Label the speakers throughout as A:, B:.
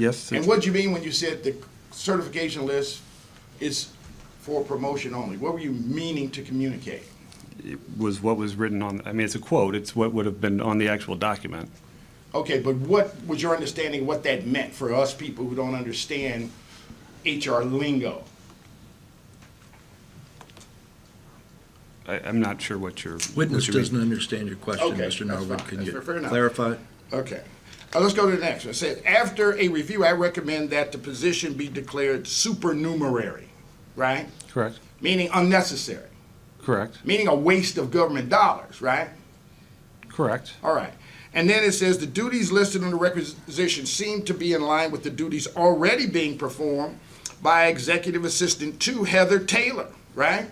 A: Yes.
B: And what do you mean when you said the certification list is for promotion only? What were you meaning to communicate?
A: was what was written on, I mean, it's a quote, it's what would have been on the actual document.
B: Okay, but what was your understanding what that meant for us people who don't understand HR lingo?
A: I, I'm not sure what your. what
C: Witness
A: your-
C: doesn't understand your question,
B: Okay,
C: Mr.
B: that's
C: Norwood.
B: fine.
C: Can
B: That's
C: you
B: fair- fair enough.
C: clarify?
B: Okay. Uh, let's go to the next one. It said, after a review, I recommend that the position be declared supernumerary, right?
A: Correct,
B: Meaning unnecessary,
A: correct,
B: meaning a waste of government dollars, right?
A: correct,
B: All right. And then it says the duties listed in the requisition seem to be in line with the duties already being performed by Executive Assistant to Heather Taylor, right?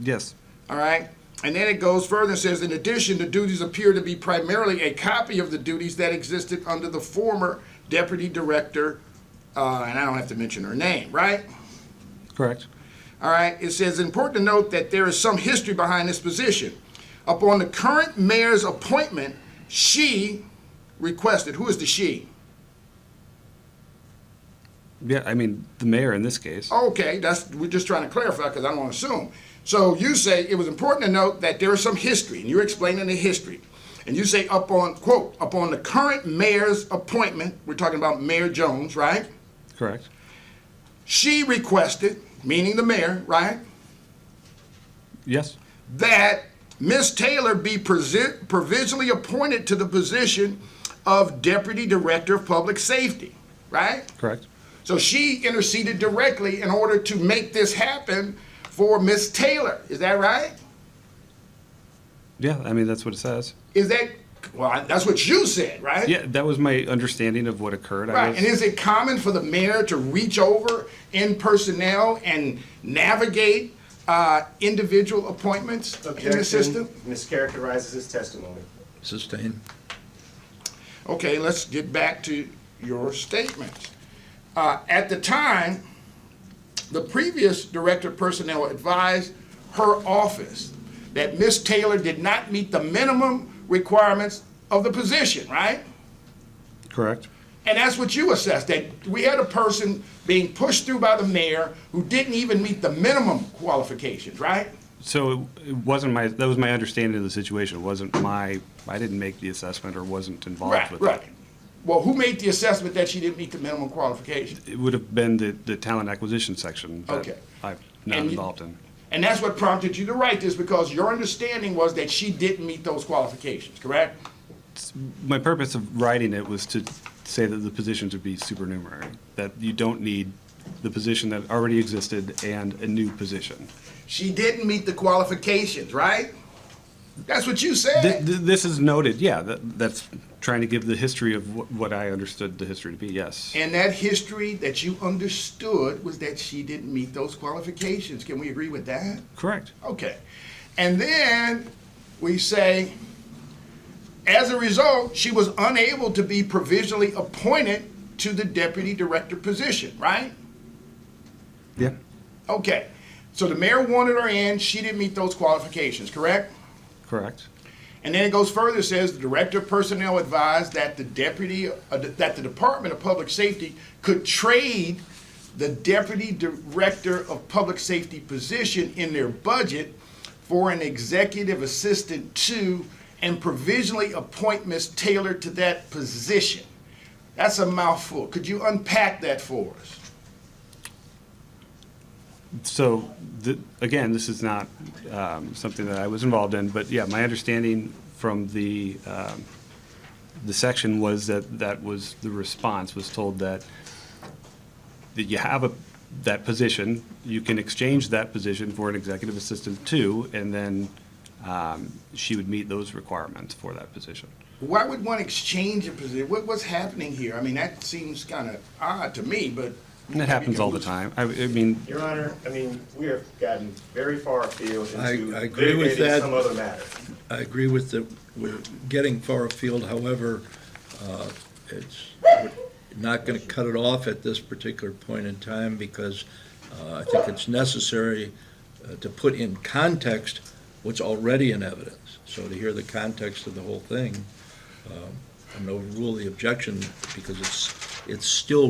A: yes,
B: All right. And then it goes further and says, in addition, the duties appear to be primarily a copy of the duties that existed under the former deputy director, uh, and I don't have to mention her name, right?
A: correct,
B: All right, it says important to note that there is some history behind this position. Upon the current mayor's appointment, she requested, who is the she?
A: yeah, I mean, the mayor in this case,
B: Okay, that's, we're just trying to clarify because I don't want to assume. So you say it was important to note that there is some history, and you're explaining the history. And you say upon, quote, upon the current mayor's appointment, we're talking about Mayor Jones, right?
A: correct,
B: She requested, meaning the mayor, right?
A: yes,
B: that Ms. Taylor be present, provisionally appointed to the position of Deputy Director of Public Safety, right?
A: correct,
B: So she interceded directly in order to make this happen for Ms. Taylor. Is that right?
A: yeah, I mean, that's what it says.
B: Is that, well, that's what you said, right?
A: Yeah, that was my understanding of what occurred. I
B: Right.
A: was-
B: And is it common for the mayor to reach over in personnel and navigate uh, individual appointments in the system?
D: Objection mischaracterizes his testimony.
C: Sustain.
B: Okay, let's get back to your statements. Uh, At the time, the previous Director of Personnel advised her office that Ms. Taylor did not meet the minimum requirements of the position, right?
A: Correct,
B: And that's what you assessed, that we had a person being pushed through by the mayor who didn't even meet the minimum qualifications, right?
A: so it- it wasn't my, that was my understanding of the situation, it wasn't my, I didn't make the assessment or wasn't involved
B: Right,
A: with it.
B: right. Well, who made the assessment that she didn't meet the minimum qualifications?
A: It would have been the, the talent acquisition section
B: Okay.
A: that I'm not
B: And you-
A: involved in,
B: And that's what prompted you to write this because your understanding was that she didn't meet those qualifications, correct?
A: My purpose of writing it was to say that the positions would be supernumerary, that you don't need the position that already existed and a new position.
B: She didn't meet the qualifications, right? That's what you
A: Th-
B: said.
A: th- This is noted, yeah, that- that's trying to give the history of wh- what I understood the history to be, yes.
B: And that history that you understood was that she didn't meet those qualifications. Can we agree with that?
A: Correct,
B: Okay. And then we say, as a result, she was unable to be provisionally appointed to the deputy director position, right?
A: yeah,
B: Okay, so the mayor wanted her in, she didn't meet those qualifications, correct?
A: correct,
B: And then it goes further, it says the director of personnel advised that the deputy, uh, that the Department of Public Safety could trade the deputy director of public safety position in their budget for an executive assistant to and provisionally appoint Ms. Taylor to that position. That's a mouthful. Could you unpack that for us?
A: so, the- again, this is not um, something that I was involved in, but yeah, my understanding from the, um, the section was that that was, the response was told that that you have a, that position, you can exchange that position for an executive assistant too, and then um, she would meet those requirements for that position.
B: Why would one exchange a position? What, what's happening here? I mean, that seems kind of odd to me, but.
A: And that happens all the time. I, I mean,
D: Your Honor, I mean, we have gotten very far afield
C: I-
D: into
C: I agree with
D: litigating
C: that.
D: some other matter.
C: I agree with the, we're getting far afield, however, uh, it's we're not going to cut it off at this particular point in time because uh, I think it's necessary uh, to put in context what's already in evidence. So to hear the context of the whole thing, um, and overrule the objection because it's, it's still